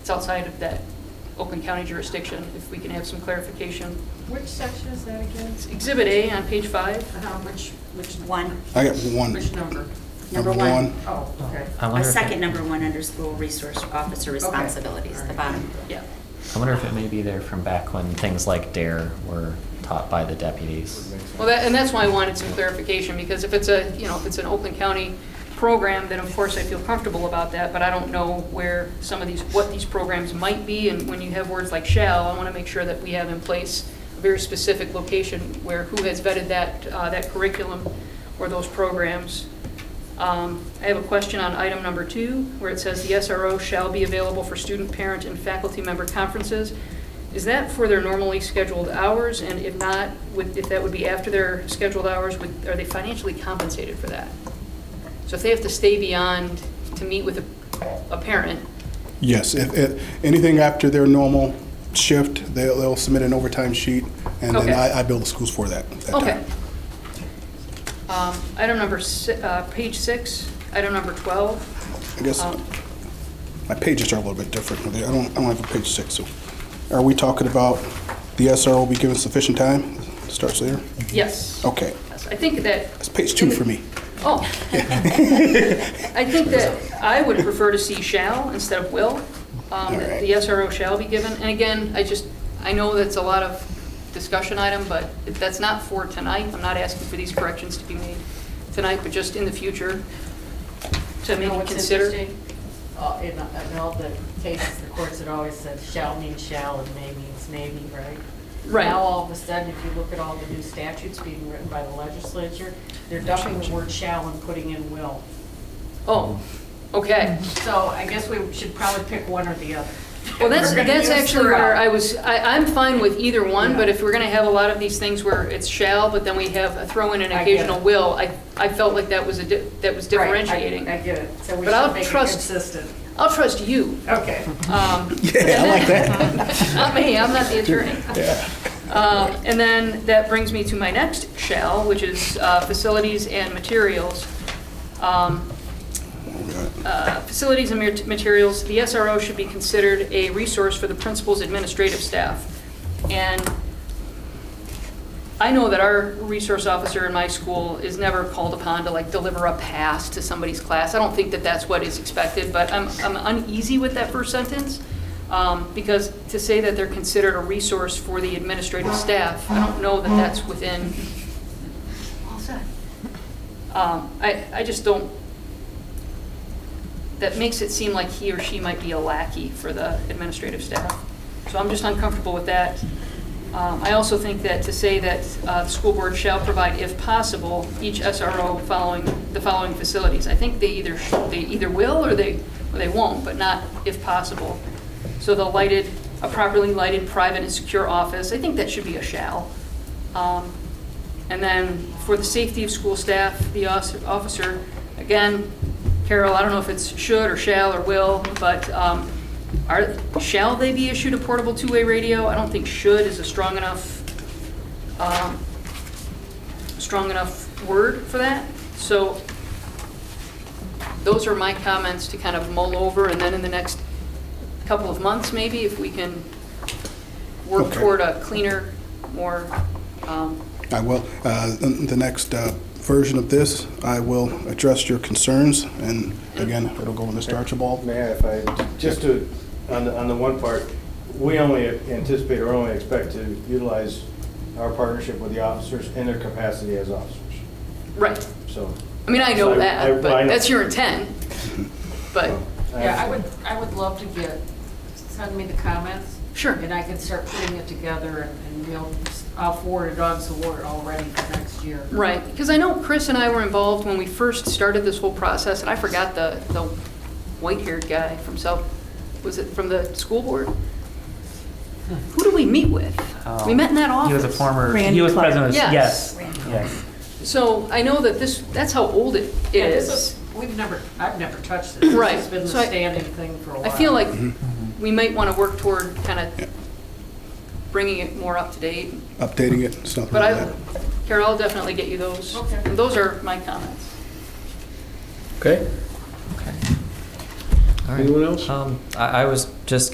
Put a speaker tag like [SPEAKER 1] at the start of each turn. [SPEAKER 1] It's outside of that Oakland County jurisdiction, if we can have some clarification.
[SPEAKER 2] Which section is that again?
[SPEAKER 1] It's Exhibit A on page five.
[SPEAKER 2] Uh-huh, which, which
[SPEAKER 3] One,
[SPEAKER 4] I got one.
[SPEAKER 2] Which number?
[SPEAKER 3] number
[SPEAKER 4] Number
[SPEAKER 3] one.
[SPEAKER 4] one.
[SPEAKER 2] Oh, okay.
[SPEAKER 5] I
[SPEAKER 3] A
[SPEAKER 5] wonder, if
[SPEAKER 3] second
[SPEAKER 5] it,
[SPEAKER 3] number one under school resource officer responsibilities, the bottom.
[SPEAKER 1] Yeah.
[SPEAKER 5] I wonder if it may be there from back when things like DARE were taught by the deputies.
[SPEAKER 1] Well, that, and that's why I wanted some clarification, because if it's a, you know, if it's an Oakland County program, then of course I feel comfortable about that, but I don't know where some of these, what these programs might be, and when you have words like shall, I want to make sure that we have in place a very specific location where who has vetted that, uh, that curriculum or those programs. Um, I have a question on item number two, where it says the SRO shall be available for student, parent, and faculty member conferences. Is that for their normally scheduled hours? And if not, would, if that would be after their scheduled hours, would, are they financially compensated for that? So if they have to stay beyond to meet with a, a parent,
[SPEAKER 4] Yes, if, if, anything after their normal shift, they'll, they'll submit an overtime sheet, and
[SPEAKER 1] Okay.
[SPEAKER 4] then I, I bill the schools for that, at that
[SPEAKER 1] okay.
[SPEAKER 4] time.
[SPEAKER 1] Um, Item number, si- uh, page six, item number 12.
[SPEAKER 4] I guess
[SPEAKER 1] Um,
[SPEAKER 4] my pages are a little bit different. I don't, I don't have a page six, so. Are we talking about the SRO will be given sufficient time? Starts there?
[SPEAKER 1] Yes.
[SPEAKER 4] Okay.
[SPEAKER 1] Yes, I think that.
[SPEAKER 4] That's page two for me.
[SPEAKER 1] Oh. I think that I would prefer to see shall instead of will. Um, that The SRO shall be given. And again, I just, I know that's a lot of discussion item, but if that's not for tonight. I'm not asking for these corrections to be made tonight, but just in the future to
[SPEAKER 2] You know
[SPEAKER 1] maybe
[SPEAKER 2] what's
[SPEAKER 1] consider.
[SPEAKER 2] interesting? Uh, In in all the cases, the courts had always said shall means shall and may means maybe, right?
[SPEAKER 1] Right.
[SPEAKER 2] Now, all of a sudden, if you look at all the new statutes being written by the legislature, they're dumping the word shall and putting in will.
[SPEAKER 1] Oh, okay.
[SPEAKER 2] So I guess we should probably pick one or the other.
[SPEAKER 1] Well, that's,
[SPEAKER 2] We're gonna
[SPEAKER 1] that's
[SPEAKER 2] use
[SPEAKER 1] actually
[SPEAKER 2] throughout.
[SPEAKER 1] where I was, I, I'm fine with either one, but
[SPEAKER 2] Yeah.
[SPEAKER 1] if we're gonna have a lot of these things where it's shall, but then we have, a throw in an
[SPEAKER 2] I get it.
[SPEAKER 1] occasional will, I, I felt like that was a, di- that was
[SPEAKER 2] Right, I-
[SPEAKER 1] differentiating.
[SPEAKER 2] I get it, so we
[SPEAKER 1] But I'll
[SPEAKER 2] should make it
[SPEAKER 1] trust-
[SPEAKER 2] consistent.
[SPEAKER 1] I'll trust you.
[SPEAKER 2] Okay.
[SPEAKER 1] Um,
[SPEAKER 4] Yeah, I like that.
[SPEAKER 1] Not me, I'm not the attorney.
[SPEAKER 4] Yeah.
[SPEAKER 1] Uh, And then that brings me to my next shall, which is uh, facilities and materials. Um, uh, Facilities and mat- materials, the SRO should be considered a resource for the principal's administrative staff. And I know that our resource officer in my school is never called upon to like deliver a pass to somebody's class. I don't think that that's what is expected, but I'm, I'm uneasy with that first sentence. um, Because to say that they're considered a resource for the administrative staff, I don't know that that's within. All set. Um, I, I just don't, that makes it seem like he or she might be a lackey for the administrative staff. So I'm just uncomfortable with that. Um, I also think that to say that uh, the school board shall provide, if possible, each SRO following, the following facilities. I think they either, they either will or they, or they won't, but not if possible. So the lighted, a properly lighted, private, and secure office, I think that should be a shall. Um, And then for the safety of school staff, the os- officer, again, Carol, I don't know if it's should or shall or will, but um, are, shall they be issued a portable two-way radio? I don't think should is a strong enough, um, strong enough word for that. So those are my comments to kind of mull over, and then in the next couple of months, maybe, if we can work
[SPEAKER 4] Okay.
[SPEAKER 1] toward a cleaner, more, um,
[SPEAKER 4] I will. Uh, in The next uh, version of this, I will address your concerns, and again, it'll go to Mr. Archibald.
[SPEAKER 6] Mayor, if I, just to, on the, on the one part, we only anticipate or only expect to utilize our partnership with the officers in their capacity as officers,
[SPEAKER 1] right.
[SPEAKER 6] so.
[SPEAKER 1] I mean, I
[SPEAKER 6] So
[SPEAKER 1] know
[SPEAKER 6] I-
[SPEAKER 1] that,
[SPEAKER 6] I
[SPEAKER 1] but
[SPEAKER 6] know.
[SPEAKER 1] that's your intent. But,
[SPEAKER 6] I
[SPEAKER 2] Yeah, I
[SPEAKER 6] understand.
[SPEAKER 2] would, I would love to get, send me the comments.
[SPEAKER 1] Sure.
[SPEAKER 2] And I can start putting it together and- and we'll, I'll forward it on so we're all ready for next year.
[SPEAKER 1] right, because I know Chris and I were involved when we first started this whole process, and I forgot the, the white-haired guy from South, was it from the school board? Who do we meet with? We met in that
[SPEAKER 5] Oh, He
[SPEAKER 1] office.
[SPEAKER 5] was a former,
[SPEAKER 7] Randy
[SPEAKER 5] he was president, of-
[SPEAKER 1] Clark. Yes.
[SPEAKER 5] yes, yes.
[SPEAKER 1] So I know that this, that's how old it
[SPEAKER 2] Yeah, this
[SPEAKER 1] is.
[SPEAKER 2] We've never, I've never touched it. This
[SPEAKER 1] Right,
[SPEAKER 2] has been the
[SPEAKER 1] so I-
[SPEAKER 2] standing thing for a
[SPEAKER 1] I
[SPEAKER 2] while.
[SPEAKER 1] feel like
[SPEAKER 6] Mm-hmm.
[SPEAKER 1] we might want to work toward kind of bringing it more up to date.
[SPEAKER 4] Updating it, stuff
[SPEAKER 1] But
[SPEAKER 4] like
[SPEAKER 1] I,
[SPEAKER 4] that.
[SPEAKER 1] Carol, I'll definitely get you those.
[SPEAKER 2] Okay.
[SPEAKER 1] And Those are my comments.
[SPEAKER 8] Okay,
[SPEAKER 5] Okay. All right.
[SPEAKER 8] anyone else?
[SPEAKER 5] Um, I, I was just